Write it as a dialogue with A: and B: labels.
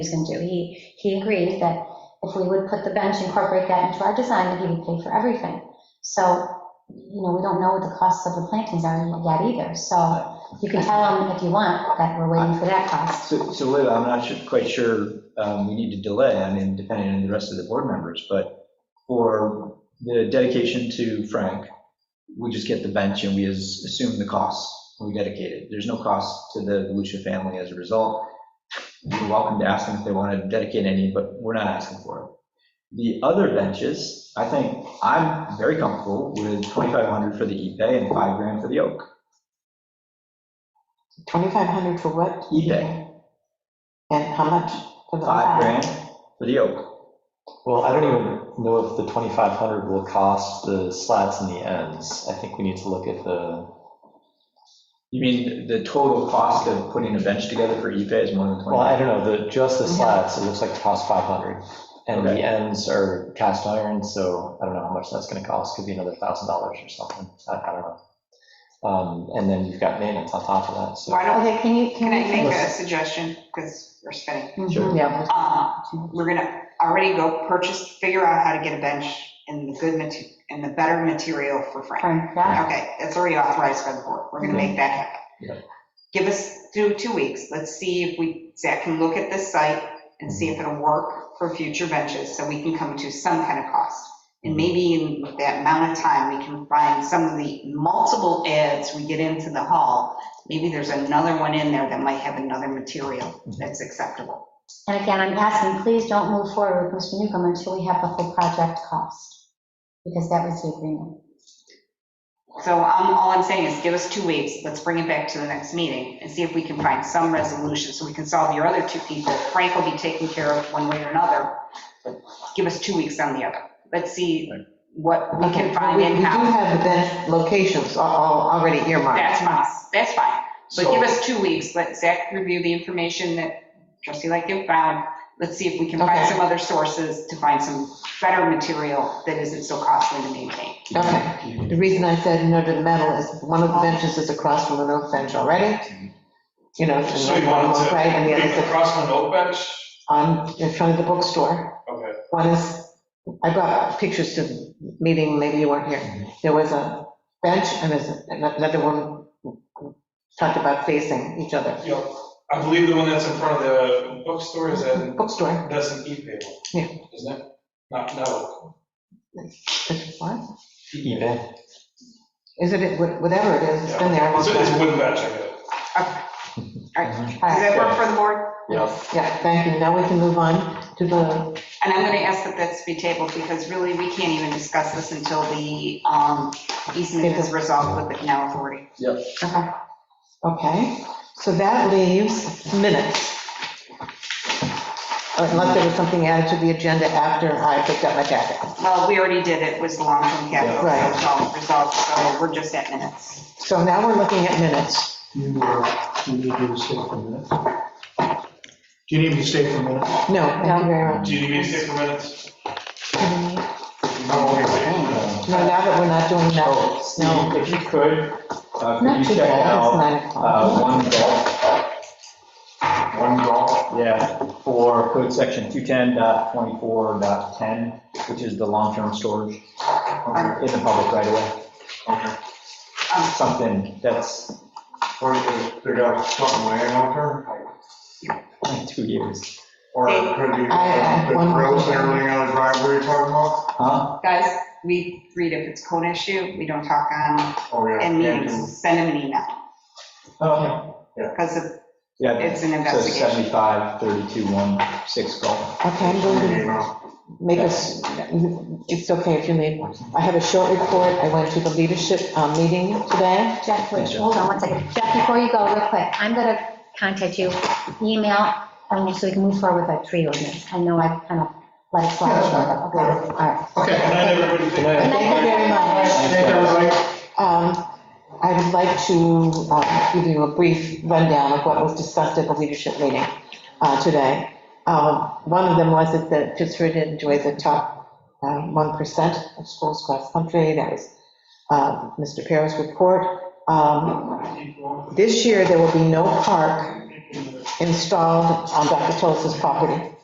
A: he's going to do. He, he agrees that if we would put the bench, incorporate that into our design, that he would pay for everything. So, you know, we don't know what the costs of the plantings are yet either, so you can tell him if you want that we're waiting for that cost.
B: So, so Lou, I'm not su- quite sure um, we need to delay, I mean, depending on the rest of the board members, but for the dedication to Frank, we just get the bench and we as- assume the cost, we dedicate it. There's no cost to the Lucia family as a result. You're welcome to ask them if they want to dedicate any, but we're not asking for it. The other benches, I think, I'm very comfortable with 2,500 for the Ipe and five grand for the oak.
C: 2,500 for what?
B: Ipe,
C: And how much? for the-
B: five grand for the oak.
D: Well, I don't even know if the 2,500 will cost the slats and the ends. I think we need to look at the,
B: You mean the total cost of putting a bench together for EPA is more than
D: well, I
B: 20?
D: don't know, the, just the slats, it looks like it costs 500. And the
B: Okay.
D: ends are cast iron, so I don't know how much that's going to cost, could be another $1,000 or something, I I don't know. Um, And then you've got maintenance on top of that, so.
E: Why don't,
C: Okay, can you,
E: can
C: can
E: I
C: you?
E: make a suggestion, because we're spinning?
B: Sure.
C: Yeah.
E: Uh, We're gonna already go purchase, figure out how to get a bench and the good, mate- and the better material for Frank.
A: Frank, yeah,
E: Okay, that's already authorized by the board, we're gonna make that
D: Yeah.
E: happen. Give us, do two weeks, let's see if we, Zach can look at this site and see if it'll work for future benches, so we can come to some kind of cost. And maybe in that amount of time, we can find some of the multiple ads we get into the hall. Maybe there's another one in there that might have another material that's acceptable.
A: and again, I'm asking, please don't move forward with Mr. Newcomb until we have the full project cost, because that was the agreement.
E: So I'm, all I'm saying is give us two weeks, let's bring it back to the next meeting and see if we can find some resolution so we can solve your other two people. Frank will be taken care of one way or another, but give us two weeks on the other. Let's see what we can find
C: We- We do
E: in-house.
C: have the bench locations all- all already
E: That's
C: earmarked.
E: fine, that's fine. But give
D: So-
E: us two weeks, let Zach review the information that trustee Lightgev found. Let's see if we can find
C: Okay.
E: some other sources to find some better material that isn't so costly to maintain.
C: Okay. The reason I said no to the metal is one of the benches is across from an oak bench already. You know, and
F: So you
C: one
F: wanted
C: one's
F: to
C: right and the
F: make
C: other's
F: the Crossman Oak bench?
C: on, in front of the bookstore.
F: Okay.
C: One is, I brought pictures to the meeting, maybe you weren't here. There was a bench and there's another one talked about facing each other.
F: Yep. I believe the one that's in front of the bookstore is that,
C: Bookstore,
F: that's an e-paper.
C: Yeah.
F: Isn't it? Not, no.
C: It's what?
D: eBay,
C: Is it, whatever it is, it's been there a long
F: It's a it's a
C: time.
F: wooden bench, I guess.
E: All right, does that work for the board?
C: Yeah, thank you. Now we can move on to the,
E: And I'm going to ask that this be tabled because really we can't even discuss this until the um, easement is resolved with the canal authority.
C: okay, so that leaves minutes. Uh, Unless there was something added to the agenda after I picked up my packet.
E: Well, we already did it, was the long-term capital, so it's all resolved, so we're just at minutes.
C: So now we're looking at minutes.
G: You, uh, you need to stay for a minute. Do you need me to stay for a minute?
C: No, thank you very much.
F: Do you need me to stay for minutes?
C: No, now that we're not doing that,
B: Steve,
C: no.
B: if you could, uh, could
C: Not
B: you
C: too
B: check
C: bad, it's
B: out
C: nine o'clock.
B: uh, one golf,
F: One golf.
B: yeah, for code section 210.24.10, which is the long-term storage in
E: Um,
B: the public right away? Something that's
H: Or they- they got something laying out there,
B: two years.
H: or it could be,
C: I have
H: the
C: one
H: grills and
C: more.
H: everything on the driveway you're talking about?
B: Huh?
E: Guys, we read if it's code issue, we don't talk on,
H: Oh, yeah.
E: in
H: can't
E: meetings, send them an email
B: Oh,
E: because of-
B: Yeah, Yeah,
E: it's an
B: so
E: investigation.
B: 75, 32, 16 golf.
C: Okay, I'm
H: do-
C: going to
H: you know.
C: make us, it's okay if you leave. I have a short report. I went to the leadership uh, meeting today.
A: Jeff, wait,
B: Yes, Jeff.
A: hold on one second. Jeff, before you go, real quick, I'm going to contact you, email, um, so we can move forward with our tree ordinance. I know I kind of let it slide.
G: Yeah, that's fine.
A: Okay, all right.
G: Okay.
F: Good night, everybody.
D: Good night.
C: Thank you very much.
G: Thank you, everybody.
C: Um, I would like to uh, give you a brief rundown of what was discussed at the leadership meeting uh, today. Um, One of them was that the Pittsford enjoys the top uh, 1% of schools across the country. That was uh, Mr. Perro's report. Um, This year, there will be no park installed on Dr. Toles' property.